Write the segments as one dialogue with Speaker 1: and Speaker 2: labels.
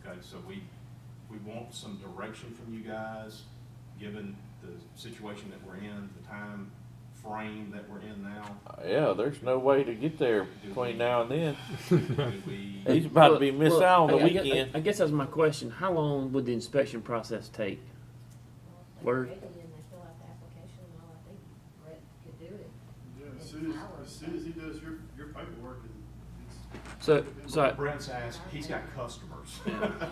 Speaker 1: okay? So we, we want some direction from you guys, given the situation that we're in, the time frame that we're in now.
Speaker 2: Uh, Yeah, there's no way to get there between now and then.
Speaker 1: Do we,
Speaker 2: He's about to be
Speaker 3: Well,
Speaker 2: missed
Speaker 3: well,
Speaker 2: out on the
Speaker 3: I- I guess-
Speaker 2: weekend.
Speaker 3: I guess that's my question. How long would the inspection process take? Word.
Speaker 4: And they fill out the application and all, I think Brett could do it.
Speaker 5: Yeah, as soon as, as soon as he does your, your paperwork and it's.
Speaker 3: So, so I-
Speaker 1: Brett's asked, he's got customers.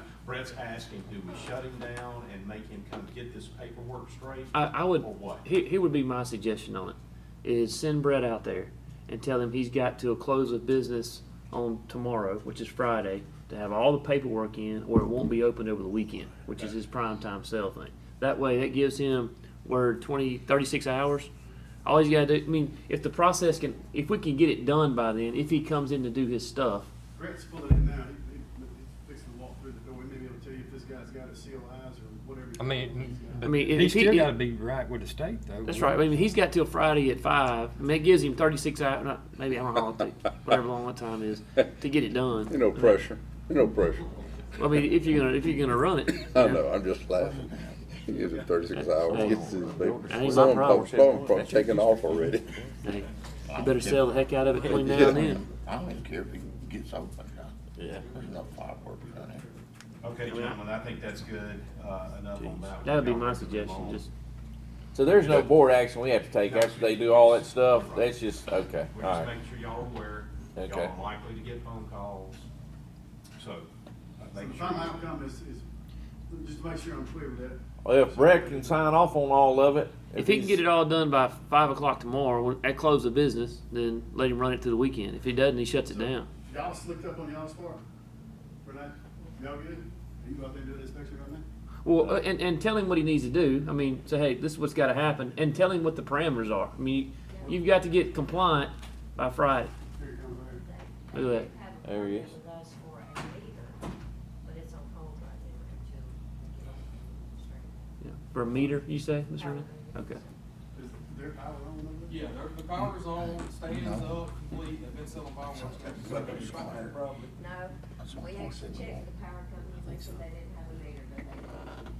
Speaker 1: Brett's asking, do we shut him down and make him come get this paperwork straight?
Speaker 3: I, I would,
Speaker 1: Or what?
Speaker 3: here, here would be my suggestion on it, is send Brett out there and tell him he's got to close of business on tomorrow, which is Friday, to have all the paperwork in, or it won't be opened over the weekend, which is his prime time sale thing. That way, that gives him, word, twenty, thirty-six hours. All he's gotta do, I mean, if the process can, if we can get it done by then, if he comes in to do his stuff,
Speaker 5: Brett's pulling in now, he, he- he's fixing to walk through the door, he may be able to tell you if this guy's got a COIs or whatever.
Speaker 6: I mean,
Speaker 3: I
Speaker 6: but
Speaker 3: mean, if-
Speaker 6: he's
Speaker 3: if he-
Speaker 6: still got to be right with the state, though.
Speaker 3: That's right. I mean, he's got till Friday at five. I mean, it gives him thirty-six hours. Not, maybe I'm a holiday, whatever long that time is, to get it done.
Speaker 7: Ain't no pressure, Ain't no pressure.
Speaker 3: I mean, if you're gonna if you're gonna run it,
Speaker 7: I know, I'm just laughing. He gives it thirty-six hours, gets his baby.
Speaker 3: That ain't my
Speaker 7: Some
Speaker 3: problem.
Speaker 7: folks, some folks taking off already.
Speaker 3: hey, you better sell the heck out of it between now and then.
Speaker 8: I don't even care if it gets open or not.
Speaker 2: Yeah.
Speaker 8: There's enough fireworks in there.
Speaker 1: Okay, gentlemen, I think that's good, uh, enough on that.
Speaker 3: That would be my suggestion. Just
Speaker 2: So there's no board action we have to take after they do all that stuff. That's just, okay,
Speaker 1: We're
Speaker 2: all
Speaker 1: just
Speaker 2: right.
Speaker 1: making sure y'all are aware, y'all
Speaker 2: Okay.
Speaker 1: are likely to get phone calls, so. uh,
Speaker 5: So
Speaker 1: make
Speaker 5: the
Speaker 1: sure
Speaker 5: final
Speaker 1: you-
Speaker 5: outcome is, is, just to make sure I'm clear with that,
Speaker 2: Well, if Brett can sign off on all of it.
Speaker 3: if he can
Speaker 2: he's-
Speaker 3: get it all done by five o'clock tomorrow, when, at close of business, then let him run it through the weekend. If he doesn't, he shuts it down.
Speaker 5: y'all slicked up on y'all's part, we're not, y'all good? Are you out there doing the inspection right now?
Speaker 3: Well, uh, and, and tell him what he needs to do. I mean, say, hey, this is what's got to happen, and tell him what the parameters are. I mean, you've got to get compliant by Friday.
Speaker 5: Here it comes right here.
Speaker 3: Look at that.
Speaker 2: There he is.
Speaker 4: With us for a meter, but it's on hold right now until we get everything straightened out.
Speaker 3: Yeah. For a meter, you say, Mr. Renee?
Speaker 4: Uh,
Speaker 3: Okay.
Speaker 5: Is their power on over there?
Speaker 9: Yeah, they're- the power's on, stands up, complete, they've been selling fireworks.
Speaker 8: Somebody's fired.
Speaker 9: Probably.
Speaker 8: That's
Speaker 4: No,
Speaker 8: what
Speaker 4: we
Speaker 8: Paul
Speaker 4: actually
Speaker 8: said.
Speaker 4: checked the power company, they said they didn't have a meter, but they do.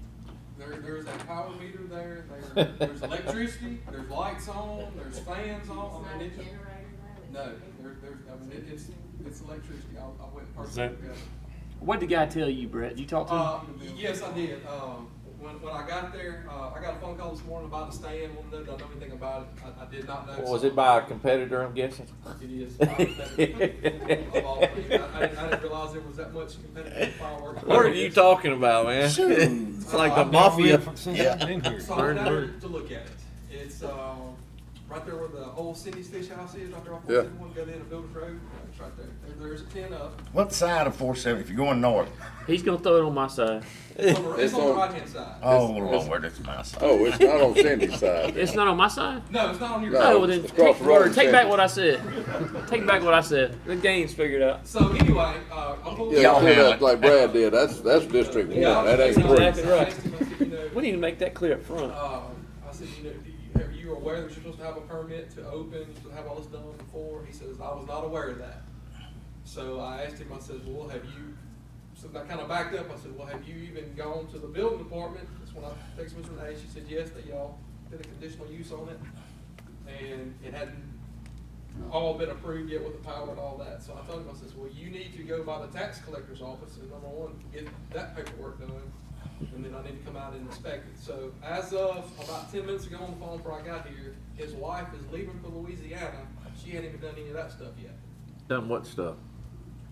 Speaker 9: There, there's a power meter there, there, there's electricity, there's lights on, there's fans on, I mean,
Speaker 4: It's not a
Speaker 9: it,
Speaker 4: generator though? it's
Speaker 9: no,
Speaker 4: a meter.
Speaker 9: there, there's, I mean, it- it's, it's electricity, I, I
Speaker 6: Is
Speaker 9: went and purchased
Speaker 6: that-
Speaker 9: it. yeah.
Speaker 3: What did the guy tell you, Brett? You talked to him?
Speaker 9: Uh, yes, I did. Um, when, when I got there, uh, I got a phone call this morning about the stand, wanted to know, did I know anything about it? I, I did not know.
Speaker 2: Was
Speaker 9: so-
Speaker 2: it by a competitor, I'm guessing?
Speaker 9: It is. Of all things. I, I didn't- I didn't realize there was that much competitive fireworks.
Speaker 2: What are you talking about, man? It's like the
Speaker 6: I've never
Speaker 2: mafia.
Speaker 6: been- Since I've been here.
Speaker 9: So I'm down to look at it. It's, um, right there where the old Cindy's Fish House is, right there off
Speaker 7: Yeah.
Speaker 9: 471, go down to Builders Road, Uh, it's right there. There- There's a ten up.
Speaker 8: What side of four seventy, if you're going north?
Speaker 3: Uh, He's gonna throw it on my side.
Speaker 9: It's on the- It's
Speaker 7: It's
Speaker 9: on the
Speaker 7: on- Uh,
Speaker 9: right-hand side.
Speaker 8: Oh, Lord, it's my side.
Speaker 7: Oh, it's not on Cindy's side.
Speaker 3: It's not on my side.
Speaker 9: No, it's not on your.
Speaker 7: No,
Speaker 3: Oh, well then
Speaker 7: it's across
Speaker 3: take,
Speaker 7: the road
Speaker 3: word,
Speaker 7: from
Speaker 3: take back
Speaker 7: Sandy's.
Speaker 3: what I said. take back what I said. The game's figured out.
Speaker 9: So anyway, uh, I'm going.
Speaker 7: Yeah,
Speaker 8: Y'all
Speaker 7: clear
Speaker 8: have
Speaker 7: that
Speaker 8: it.
Speaker 7: like Brad did, that's, that's District One, that ain't
Speaker 3: Exactly.
Speaker 7: three.
Speaker 9: You know,
Speaker 3: We need to make that clear up front.
Speaker 9: Uh, I said, you know, do you, are you aware that you're supposed to have a permit to open, you're supposed to have all this done before? He says, I was not aware of that. So I asked him, I says, well, have you, so I kinda backed up, I said, well, have you even gone to the building department? That's when I texted Ms. Renee, she said, yes, that y'all did a conditional use on it, and it hadn't all been approved yet with the power and all that. So I told him, I says, well, you need to go by the tax collector's office and number one, get that paperwork done, and then I need to come out and inspect it. So as of about ten minutes ago on the phone before I got here, his wife is leaving for Louisiana. She hadn't even done any of that stuff yet.
Speaker 2: Done what stuff?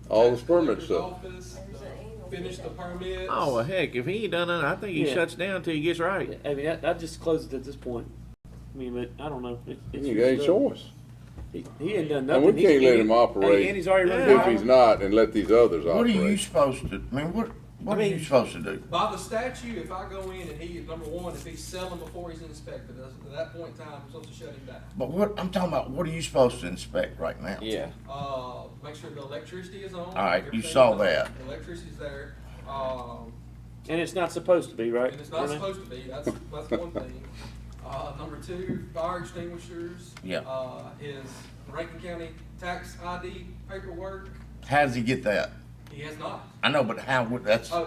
Speaker 7: All the
Speaker 9: Tax
Speaker 7: permits
Speaker 9: collector's
Speaker 7: stuff.
Speaker 9: office,
Speaker 4: There's an annual
Speaker 9: the- Finished the permits.
Speaker 2: Oh, well, heck, if he ain't done it, I think he
Speaker 3: Yeah.
Speaker 2: shuts down till he gets right.
Speaker 3: I mean, I, I just closed it at this point. I mean, but I don't know. It, it's
Speaker 7: You
Speaker 3: your
Speaker 7: ain't
Speaker 3: stuff.
Speaker 7: choice.
Speaker 3: He, he ain't done
Speaker 7: And
Speaker 3: nothing.
Speaker 7: we
Speaker 3: He's-
Speaker 7: can't let
Speaker 3: he-
Speaker 7: him operate
Speaker 3: And he's already running
Speaker 7: If
Speaker 3: out.
Speaker 7: he's not, and let these others
Speaker 8: What are you
Speaker 7: operate.
Speaker 8: supposed to, I mean, what, what are you supposed to do?
Speaker 9: By the statute, if I go in and he, number one, if he's selling before he's inspected, that's- at that point in time, I'm supposed to shut him down.
Speaker 8: But what, I'm talking about, what are you supposed to inspect right now?
Speaker 2: Yeah.
Speaker 9: Uh, make sure the electricity is on. All
Speaker 8: right, you saw that.
Speaker 9: Electricity's there, um,
Speaker 3: And it's not supposed to be, right?
Speaker 9: and it's not
Speaker 3: Renee?
Speaker 9: supposed to be, that's, that's one thing. Uh, number two, fire extinguishers.
Speaker 8: Yeah.
Speaker 9: Uh, his Rankin County tax ID paperwork,
Speaker 8: How does he get that?
Speaker 9: he has not.
Speaker 8: I know, but how would, that's.
Speaker 9: Oh,